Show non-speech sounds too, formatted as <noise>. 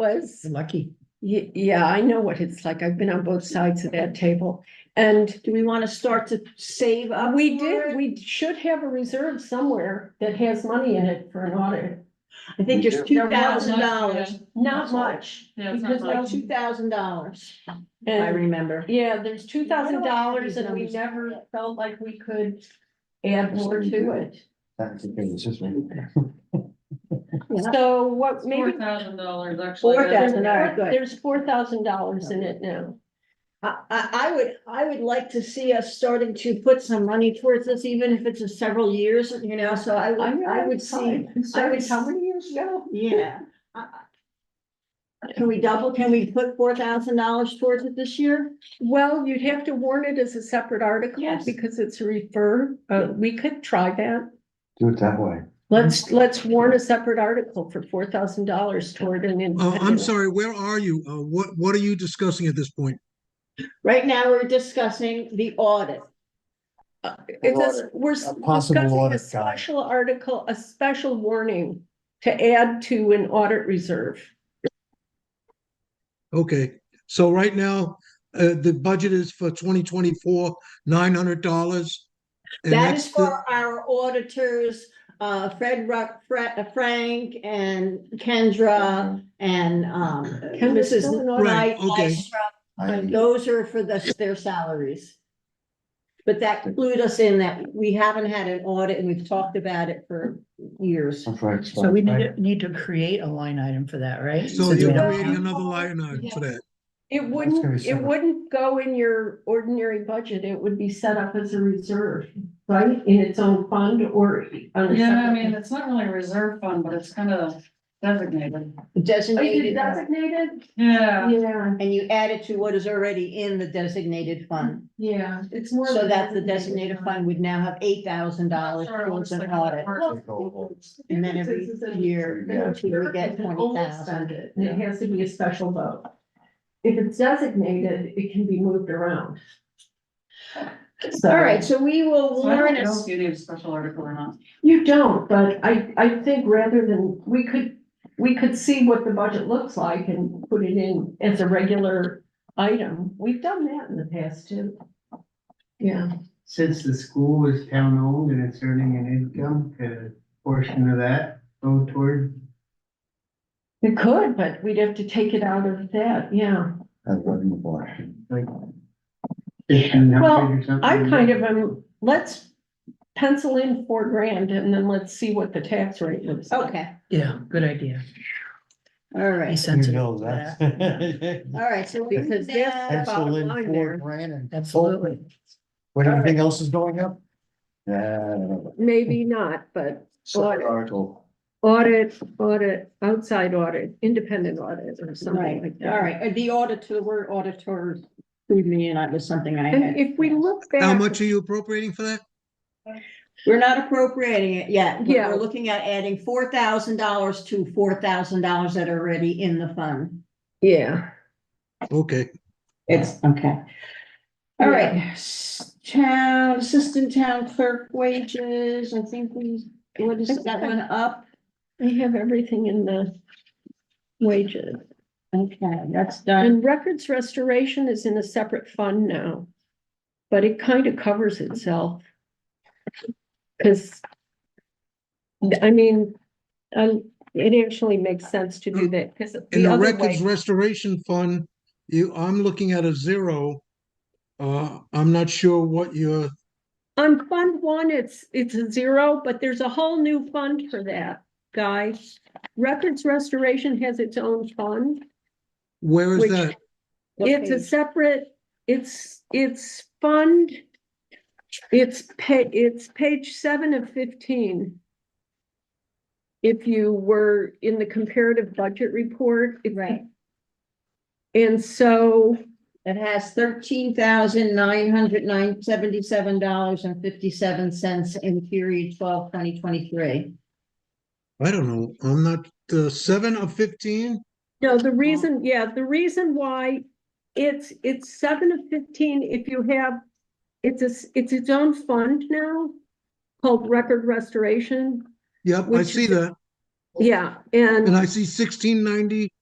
was Lucky. Ye- yeah, I know what it's like. I've been on both sides of that table. And Do we want to start to save up? Uh, we for did, it? we should have a reserve somewhere that has money in it for an audit. I think We there's do. two thousand dollars, Not much. Yeah, it's because not like much. two thousand dollars, I And, remember. yeah, there's two thousand dollars and we Why do I have these never felt like we could add more to it. That's the thing, it's just like- <laughs> So what Four maybe thousand dollars actually. Four that's- thousand, all right, good. there's four thousand dollars in it now. I, I, I would, I would like to see us starting to put some money towards this, even if it's a several years, you know, so I would, I would see. I would- how many years ago? Yeah. I- I- Can we double, can we put four thousand dollars towards it this year? Well, you'd have to warn it as a separate article Yes. because it's a refer, uh, we could try that. Do it that way. Mm-hmm. Let's, let's warn a separate article for four thousand dollars toward an. Uh, I'm independent- sorry, where are you? Uh, what, what are you discussing at this point? Right now, we're discussing the audit. It does, we're s- A possible discussing a audit guide. special article, a special warning to add to an audit reserve. Okay, so right now, uh, the budget is for twenty twenty-four, nine hundred dollars. and That that's is the- for our auditors, uh, Fred Ruck, Fre- uh, Frank and Uh, Kendra and, um, Mm-hmm. Kendra's Mrs. still an Knight. audit- Right, okay. And I, those are for the, their salaries. But that clued us in that we haven't had an audit and we've talked about it for years. I'm right, So we need right. to, need to create a line item for that, right? So Since we you're don't creating have- another line item for that. It gonna be wouldn't, it separate. wouldn't go in your ordinary budget. It would be set up as a reserve, right? In its own fund or. on a Yeah, I separate- <laughs> mean, it's not really a reserve fund, but it's kind of designated. Oh, you did Designated, Designated? Yeah. Yeah, and you add it to what is already in the designated fund. yeah, it's more. So of a that the designated fund would now have eight thousand dollars Sorry, towards I'm an just like- audit. And And then every year, we get twenty thousand. It has to be a special vote. If it's designated, it can be moved around. So- All right, so we will So I learn don't it. know if you need a special article or not. You don't, but I, I think rather than, we could, we could see what the budget looks like and put it in as a regular item. We've done that in the past too. Yeah, since the school is town owned and it's earning an income, could a portion of that go toward? we could, but we'd have to take it out of that, yeah. That's right in the bar. Well, Well, I kind of am, let's pencil in four grand and then let's see what the tax rate looks like. Okay, Yeah, good idea. all Be right, You sensitive know to that. <laughs> that. all right, so we Because could there's now. the bottom Excellent, line four there. grand and. Absolutely. When everything else is going up? Yeah, I don't know. Maybe not, but Separate article. audit, audit, outside audit, independent audit or something Right, like that. all right, and the auditor, word auditor, threw me and that was something I And had. if we look back. How much are you appropriating for that? We're not appropriating it yet, but Yeah. we're looking at adding four thousand dollars to four thousand dollars that are already in the fund. Yeah. Okay, It's, okay. All right, s- town, assistant town clerk wages, I think we, what is that one up? I have everything in the wages. Okay, that's done. And records restoration is in a separate fund now. But it kind of covers itself. Cause. I mean, I, it actually makes sense to do that, cause in the the other records way, restoration fund, you, I'm looking at a zero. Uh, I'm not sure what your, on fund one, it's, it's a zero, but there's a whole new fund for that, guys. Records restoration has its own fund. where is Which- that? It's a separate, it's, it's fund. It's pa- it's page seven of fifteen. If you were in the comparative budget report. it- Right. And so, It has thirteen thousand nine hundred nine seventy-seven dollars and fifty-seven cents in period twelve twenty twenty-three. I don't know. I'm not, uh, seven of fifteen? no, the reason, yeah, the reason why it's, it's seven of fifteen, if you have, it's a, s- it's its own fund now called Record Restoration. Yep, I Which- see that. Yeah, And and I see sixteen ninety